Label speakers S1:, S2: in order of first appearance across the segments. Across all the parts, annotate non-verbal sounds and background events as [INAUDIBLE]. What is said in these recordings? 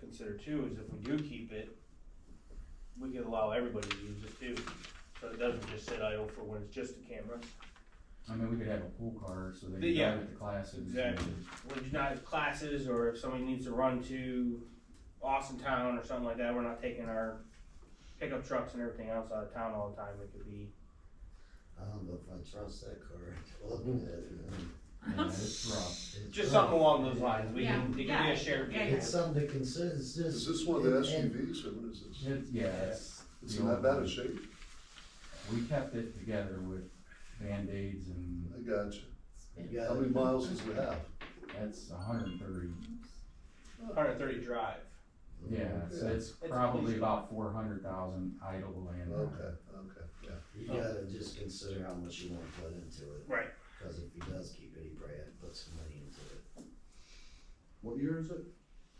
S1: consider too is if we do keep it, we could allow everybody to use it too. So it doesn't just sit idle for when it's just a camera.
S2: I mean, we could have a pool car so they
S1: The-
S2: can
S1: yeah.
S2: drive it to classes. and-
S1: Exactly. When you're not at classes or if somebody needs to run to Austin town or something like that, we're not taking our pickup trucks and everything else out of town all the time. It could be,
S3: I don't know if I trust that car. It's
S2: Yeah, it's rough.
S1: just
S3: rough.
S1: something along those lines. We can, it
S4: Yeah,
S1: can be
S4: yeah,
S1: a shared
S4: yeah,
S1: vehicle.
S3: It's something to consider, it's just.
S5: Is this one of the
S3: and-
S5: SUVs, or what is this?
S2: It's, yeah, it's.
S5: It's
S2: the
S5: in that
S2: old
S5: bad
S2: one.
S5: a shape?
S2: We kept it together with Band-Aids and
S5: I got you.
S3: you
S5: How
S3: gotta-
S5: many miles does it have?
S2: that's hundred and thirty.
S1: Hundred thirty drive.
S2: Yeah, so it's
S1: It's
S2: probably
S1: easy.
S2: about four hundred thousand idle land.
S5: Okay, okay, yeah.
S3: You gotta just consider how much you wanna put into it,
S1: Right.
S3: cause if he does keep it, he probably had to put some money into it.
S5: What year is it?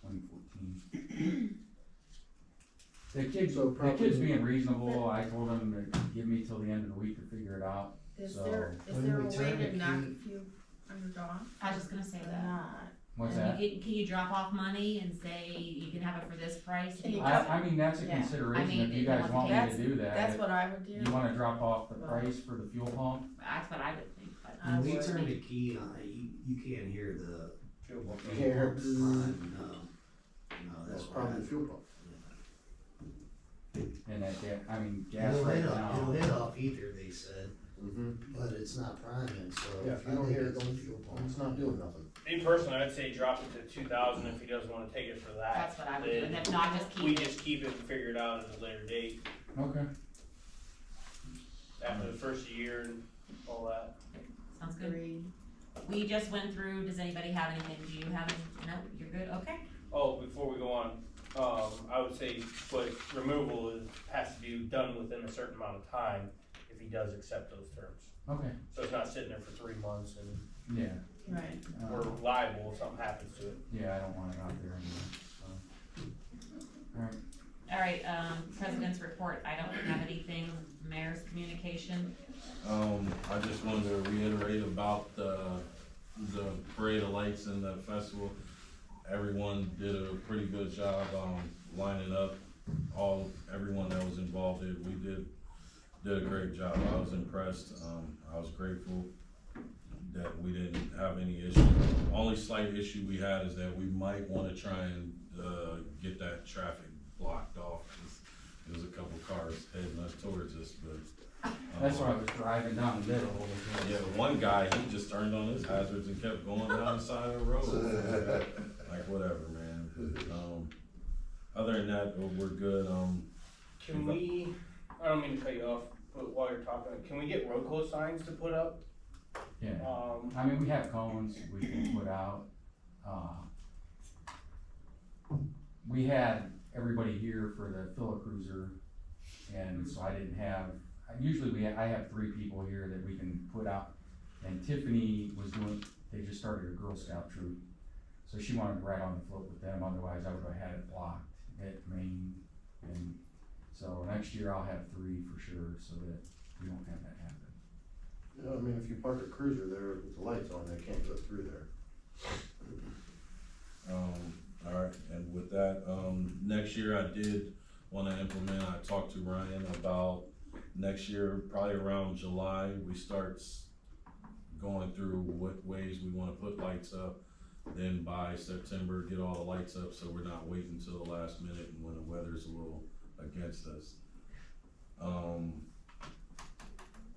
S2: Twenty fourteen. The kids,
S6: So
S2: the kids
S6: probably-
S2: being reasonable, I told them to give me till the end of the week to figure it out.
S7: Is
S2: So-
S7: there, is
S3: When
S7: there
S3: we
S7: a
S3: turn
S7: way
S3: the
S7: to knock
S3: key-
S7: a few under dawn?
S4: I was just gonna say
S7: Or
S4: that.
S7: not?
S2: What's
S4: And
S2: that?
S4: you Can, can you drop off money and say you can have it for this price?
S7: Can you
S2: I, I mean, that's a
S7: Yeah. I
S2: consideration,
S4: mean,
S2: if you
S4: it-
S2: guys want me
S7: that's-
S2: to do that,
S7: That's what I would
S2: if you
S7: do.
S2: wanna drop off the price for the fuel pump,
S4: That's what I would think, but.
S6: Uh,
S7: I
S3: When we
S7: would.
S3: turn the key on, you, you can't hear the.
S1: Fuel
S3: pump.
S6: Here.
S3: No, no, that's
S5: That's probably the
S3: probably.
S5: Oh, fuel pump.
S2: and that, ga- I mean, gas
S3: It'll
S2: right
S3: hit off, it'll
S2: now.
S3: hit off either, they said,
S6: Mm-hmm.
S3: but it's not priming, so.
S5: Uh,
S6: Yeah, if you don't hear it,
S3: I think
S6: don't-
S3: it's fuel pump.
S6: It's not doing nothing.
S1: In person, I'd say drop it to two thousand if he doesn't wanna take it for that.
S4: That's what I would do, and
S1: Then
S4: if not, just
S1: We
S4: keep it.
S1: just keep it and figure it out at a later date,
S2: Okay,
S1: after the first year and all that.
S4: Sounds good.
S7: Agreed.
S4: We just went through, does anybody have anything? Do you have, any- no, you're good, okay?
S1: Oh, before we go on, um, I would say, but removal is, has to be done within a certain amount of time if he does accept those terms.
S2: okay,
S1: So it's not sitting there for three months and
S2: yeah,
S7: Right.
S1: we're
S2: uh,
S1: liable if something happens to it.
S2: yeah, I don't want it out there anymore, so. Alright,
S4: All right, um, president's report, I don't have anything, mayor's communication,
S8: Um, I just wanted to reiterate about the, the parade of lights and the festival. Everyone did a pretty good job, um, lining up, all, everyone that was involved did, we did, did a great job. I was impressed, um, I was grateful that we didn't have any issue. Only slight issue we had is that we might wanna try and, uh, get that traffic blocked off. 'cause There was a couple cars heading us towards us, but. um,
S2: that's why I was driving down the middle, was-
S8: yeah, one guy, he just turned on his hazards and kept going down the side of the
S6: Oh.
S5: [LAUGHS]
S8: road. Like, whatever, man. Um, other than that, uh, we're good. Um,
S1: Can we, I don't mean to cut you off, but while you're talking, can we get road close signs to put up?
S2: yeah.
S1: Um,
S2: I mean, we have cones we can put out, uh. We had everybody here for the Philip Cruiser, and so I didn't have, usually we, I have three people here that we can put out. And Tiffany was doing, they just started a Girl Scout troop, so she wanted to ride on the float with them, otherwise I would have had it blocked at Maine. And so next year I'll have three for sure, so that we don't have that happen.
S6: You know, I mean, if you park a cruiser there with the lights on, they can't go through there.
S8: um, all right, and with that, um, next year I did wanna implement, I talked to Ryan about next year, probably around July, we start s- going through what ways we wanna put lights up. Then by September, get all the lights up, so we're not waiting till the last minute and when the weather's a little against us. Um.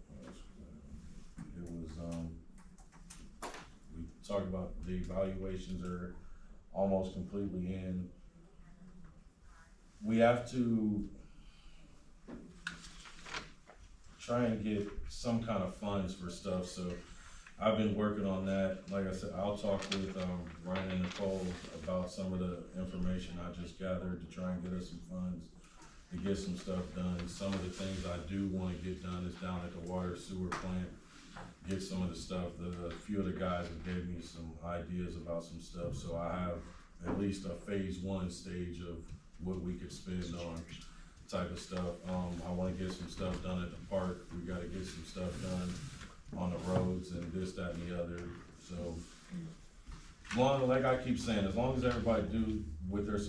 S8: what else was It It was, um, we talked about the evaluations are almost completely in. We have to try and get some kind of funds for stuff, so I've been working on that. Like I said, I'll talk with, um, Ryan and Nicole about some of the information I just gathered to try and get us some funds to get some stuff done. Some of the things I do wanna get done is down at the water sewer plant get some of the stuff. The a few of the guys have gave me some ideas about some stuff, so I have at least a phase one stage of what we could spend on type of stuff. Um, I wanna get some stuff done at the park. We gotta get some stuff done on the roads and this, that, and the other. So, long like I keep saying, as long as everybody do what they're